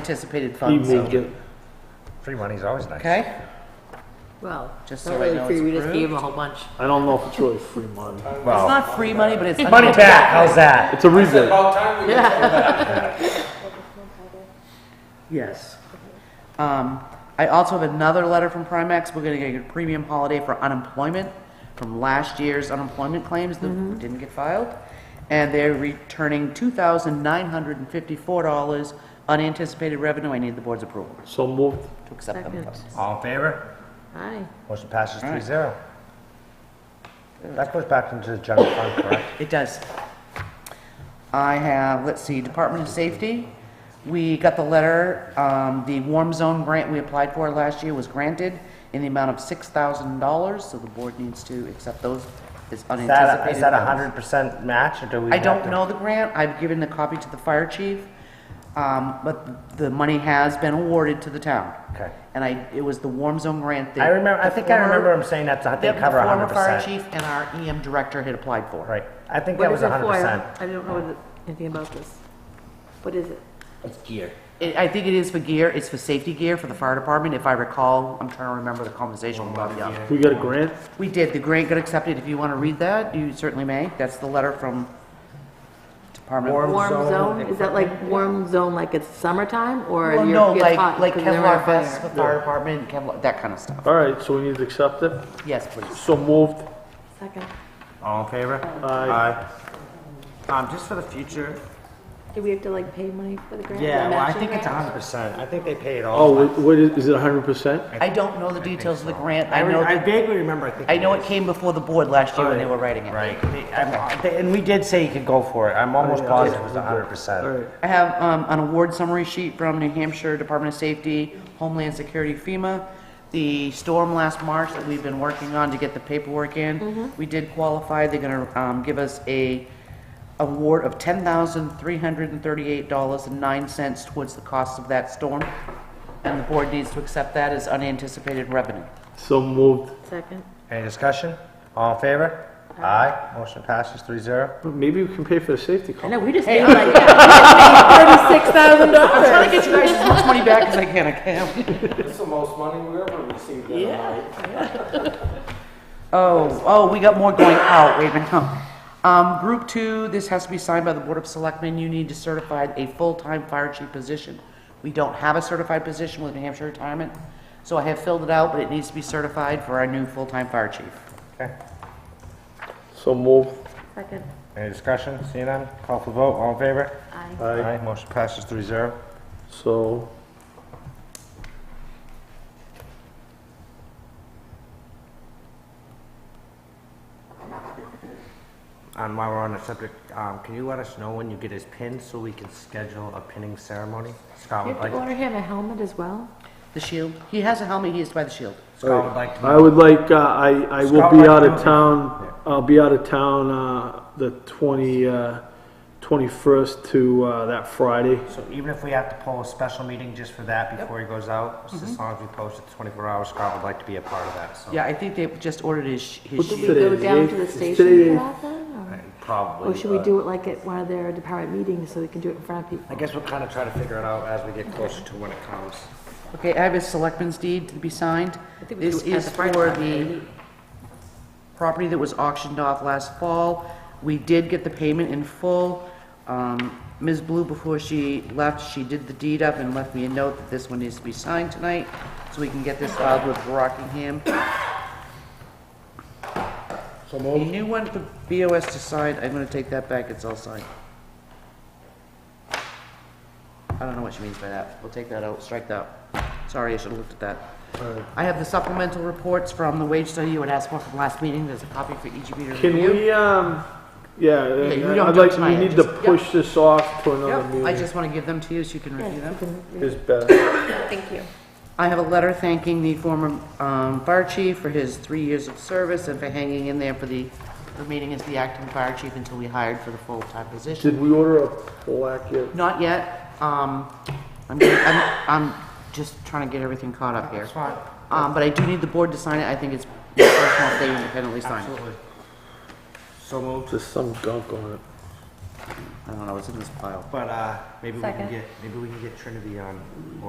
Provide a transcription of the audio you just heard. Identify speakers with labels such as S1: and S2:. S1: Unanticipated funds,
S2: Evening, get-
S3: Free money's always nice.
S1: okay?
S4: Well,
S1: Just
S4: not
S1: so I
S4: really
S1: know
S4: free,
S1: it's
S4: we just gave
S1: approved.
S4: them a whole bunch.
S2: I don't know if it's really free money.
S1: It's
S3: Well,
S1: not free money, but it's.
S3: money back, how's that?
S2: It's a rebate.
S1: Yes. Um, I also have another letter from Primex. We're gonna get a premium holiday for unemployment from last year's unemployment claims
S4: Mm-hmm.
S1: that didn't get filed. And they're returning two thousand nine hundred and fifty-four dollars unanticipated revenue. I need the board's approval
S2: So moved.
S1: to accept them.
S4: Second.
S3: All in favor?
S4: Aye.
S3: Motion passes three
S1: Alright.
S3: zero. That goes back into the general fund, correct?
S1: It does. I have, let's see, Department of Safety. We got the letter, um, the warm zone grant we applied for last year was granted in the amount of six thousand dollars, so the board needs to accept those as
S3: Is that,
S1: unanticipated.
S3: is that a
S1: funds.
S3: hundred percent match, or do we?
S1: I
S3: have
S1: don't
S3: to-
S1: know the grant, I've given the copy to the fire chief, um, but the money has been awarded to the town.
S3: Okay.
S1: And I, it was the warm zone grant that.
S3: I remember, I
S1: the
S3: think I
S1: former-
S3: remember him saying that, I
S1: that
S3: think
S1: the
S3: cover a
S1: former
S3: hundred
S1: fire
S3: percent.
S1: chief and our EM director had applied for.
S3: Right, I think
S4: What
S3: that
S4: is
S3: was a
S4: it for?
S3: hundred percent.
S4: I don't know what it- anything about this. What is it?
S1: It, I think it is for gear, it's for safety gear for the fire department, if I recall, I'm trying to remember the conversation we got, yeah.
S2: We got a grant?
S1: We did, the grant got accepted, if you wanna read that, you certainly may, that's the letter from Department.
S3: Warm
S4: Warm
S3: zone
S4: zone? Is that like warm zone, like it's summertime or
S1: Well,
S4: you're-
S1: no,
S4: it's
S1: like,
S4: hot
S1: like
S4: because they're on
S1: Kevlar vests for
S4: fire?
S1: fire department, Kevlar, that kinda stuff,
S2: All right, so we need to accept it.
S1: yes, please.
S2: So moved.
S4: Second.
S3: All in favor?
S2: Aye.
S3: Um, just for the future,
S4: Do we have to like pay money for the grant?
S3: yeah,
S4: The
S3: well, I
S4: matching
S3: think it's a
S4: grant?
S3: hundred percent, I think they pay it all.
S2: Oh, wait, what is, is it hundred percent?
S1: I don't know the details of the grant, I
S3: I re-
S1: know,
S3: I
S1: that-
S3: vaguely remember, I think.
S1: I know it came before the board last year when they were writing it.
S3: Right, They- I'm- they- and we did say you could go for it, I'm almost
S2: yeah.
S3: positive it was a
S2: Okay.
S3: hundred
S2: All
S3: percent.
S2: right.
S1: I have um, an award summary sheet from New Hampshire Department of Safety, Homeland Security, FEMA. The storm last March that we've been working on to get the paperwork in, we did qualify. They're going to give us a award of $10,338.09 towards the cost of that storm, and the board needs to accept that as unanticipated revenue.
S2: So moved.
S4: Second.
S3: Any discussion? All in favor? Aye, motion passes three zero.
S2: But maybe we can pay for the safety
S4: I
S2: cost.
S4: know, we just paid like thirty-six thousand dollars.
S1: Trying to get you guys as much money back as I can, I can.
S5: It's the most money we ever received in a night.
S1: Oh, oh, we got more going out right now. Um, group two, this has to be signed by the Board of Selectmen. You need to certify a full-time fire chief position. We don't have a certified position with New Hampshire Retirement, so I have filled it out, but it needs to be certified for our new full-time fire chief.
S3: Okay,
S2: So moved.
S4: Second.
S3: any discussion? Seeing none, call for vote, all in favor?
S4: Aye.
S2: Aye.
S3: Motion passes three zero.
S2: So,
S3: And while we're on the subject, um, can you let us know when you get his pin so we can schedule a pinning ceremony? Scott
S4: You
S3: would
S4: have to
S3: like,
S4: order him a helmet as well?
S1: The shield, he has a helmet, he is by the shield.
S3: Scott would like to
S2: I would like, uh, I, I will
S3: Scott,
S2: be
S3: like
S2: out of
S3: you-
S2: town, I'll be out of town, uh, the twenty, uh, twenty-first to, uh, that Friday.
S3: So even if we have to pull a special meeting just for that before he goes out, just
S4: Mm-hmm.
S3: as long as we post it twenty-four hours, Scott would like to be a part of that, so.
S1: Yeah, I think they just ordered his, sh- his
S2: What's
S4: Should we
S1: shield.
S2: Today
S4: go
S2: is the
S4: down
S2: eighth.
S4: to the
S2: It's
S4: station
S2: today.
S4: for that then? or-
S3: Uh, Probably.
S4: Or should we
S3: but
S4: do it like at one of their department meetings so we can do it in front of people?
S3: I guess we'll kind of try to figure it out as we get closer to when it comes.
S1: Okay, I have his selectman's deed to be signed.
S4: think we
S1: This
S4: do it at
S1: is
S4: the fire
S1: for
S4: department,
S1: the property that was auctioned off last fall. We did get the payment in full. Um, Ms. Blue, before she left, she did the deed up and left me a note that this one needs to be signed tonight, so we can get this filed with Rockingham.
S3: So
S1: A new one for BOS to sign, I'm gonna take that back, it's all signed. I don't know what she means by that, we'll take that out, strike that. Sorry, I should've looked at that. I have the supplemental reports from the wage study you had asked for from last meeting, there's a copy for each of you to
S2: Can
S1: review.
S2: we, um, yeah,
S1: you don't
S2: I'd
S1: do it
S2: like, we
S1: tonight,
S2: need to
S1: just-
S2: push this off to another
S1: Yep,
S2: meeting.
S1: I just wanna give them to you so you can review them.
S2: Is better.
S4: Thank you.
S1: I have a letter thanking the former um, fire chief for his three years of service and for hanging in there for the remaining as the acting fire chief until we hired for the full-time position.
S2: Did we order a black yet?
S1: Not yet. Um, I'm, gonna- I'm, I'm just trying to get everything caught up here.
S3: That's fine,
S1: Um, but I do need the board to sign it. I think it's my personal if they independently sign it.
S3: absolutely. So moved.
S2: There's some gunk on it.
S1: I don't know, it's in this pile.
S3: But, uh, maybe we can
S4: Second.
S3: uh, get, maybe we can get Trinity on,